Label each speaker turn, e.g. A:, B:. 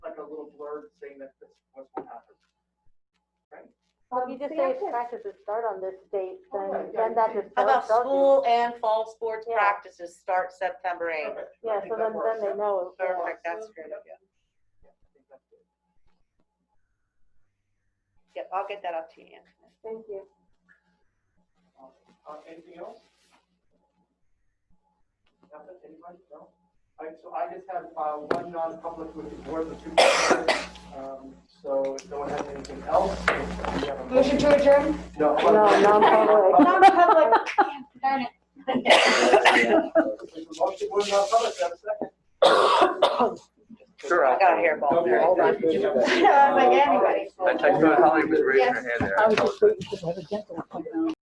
A: verb saying that this was what happened.
B: Well, if you just
C: See,
B: say
C: I
B: it's
C: can't-
B: practices start on this date,
A: Oh,
B: then,
A: yeah,
B: then that
A: yeah.
B: is.
D: How about
B: tells you.
D: school and fall sports
B: Yeah.
D: practices start September 8th?
A: Perfect. I
B: Yeah,
A: think
B: so
A: that
B: then,
A: works.
B: then they know. yeah.
D: Perfect, that's great.
A: Yeah, I think that's good.
D: Yep, I'll get that up to you, Anthony.
B: Thank you.
A: Um, uh, Anything else? Nothing, anybody? No? All right, so I just have uh, one non-public with the board, the two. Um, So if no one has anything else. we have a-
C: Motion to adjourn?
A: No.
B: No, non-public.
C: Non-public. Darn it.
A: Motion, we're non-public, have a second.
E: Sure.
D: I
E: I'll-
D: got a hairball there.
A: Okay,
E: on.
A: thank you.
E: I was
C: like,
A: Um,
C: anybody.
A: all right,
E: I
A: so-
E: thought Holly was raising her
C: Yes.
E: hand there.
F: I was just waiting to have a dental appointment.